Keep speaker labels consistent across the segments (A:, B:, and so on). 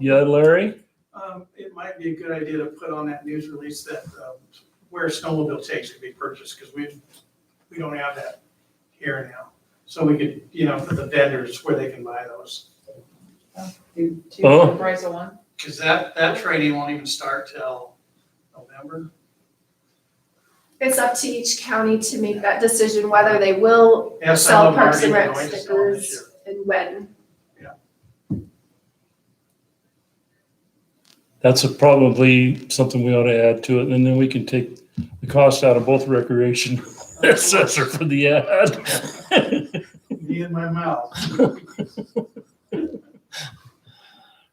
A: Yeah, Larry?
B: Um, It might be a good idea to put on that news release that um, where snowmobile takes can be purchased, because we, we don't have that here now. So we could, you know, for the vendors where they can buy those,
C: Do two
A: Oh.
C: for the price of one?
B: because that, that training won't even start till November.
D: It's up to each county to make that decision whether they will
B: Yeah, some
D: sell
B: of them aren't
D: Parks and
B: even
D: Rec
B: going to sell them this year.
D: stickers and when.
A: That's a- probably something we ought to add to it, and then we can take the cost out of both recreation assessor for the ad.
B: Me and my mouth.
A: Does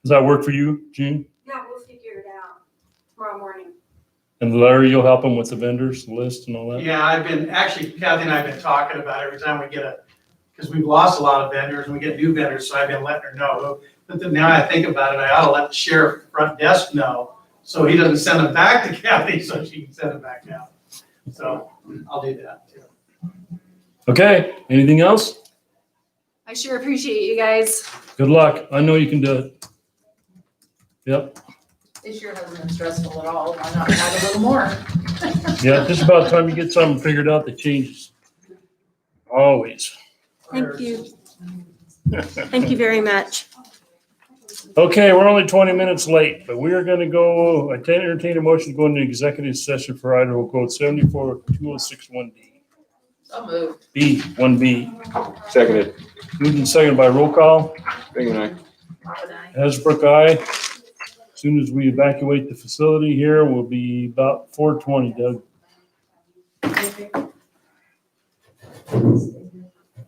A: that work for you, June?
E: No, we'll figure it out tomorrow morning.
A: And Larry, you'll help them with the vendors list and all that?
B: Yeah, I've been, actually Kathy and I have been talking about every time we get a, because we've lost a lot of vendors and we get new vendors, so I've been letting her know. But then now I think about it, I ought to let the sheriff front desk know, so he doesn't send them back to Kathy, so she can send them back out. So I'll do that too.
A: Okay, anything else?
D: I sure appreciate you guys.
A: Good luck. I know you can do it. Yep,
C: This year hasn't been stressful at all, why not add a little more?
A: yeah, just about time you get something figured out that changes. Always.
E: Thank you. Thank you very much.
A: Okay, we're only twenty minutes late, but we are gonna go, I can entertain a motion to go into executive session for Idaho Code seventy-four two oh six one D.
C: So moved.
A: B, one B.
F: Seconded.
A: Moved and seconded by roll call.
F: Bingham and I.
A: Hasbrook, aye. As Soon as we evacuate the facility here, we'll be about four twenty, Doug.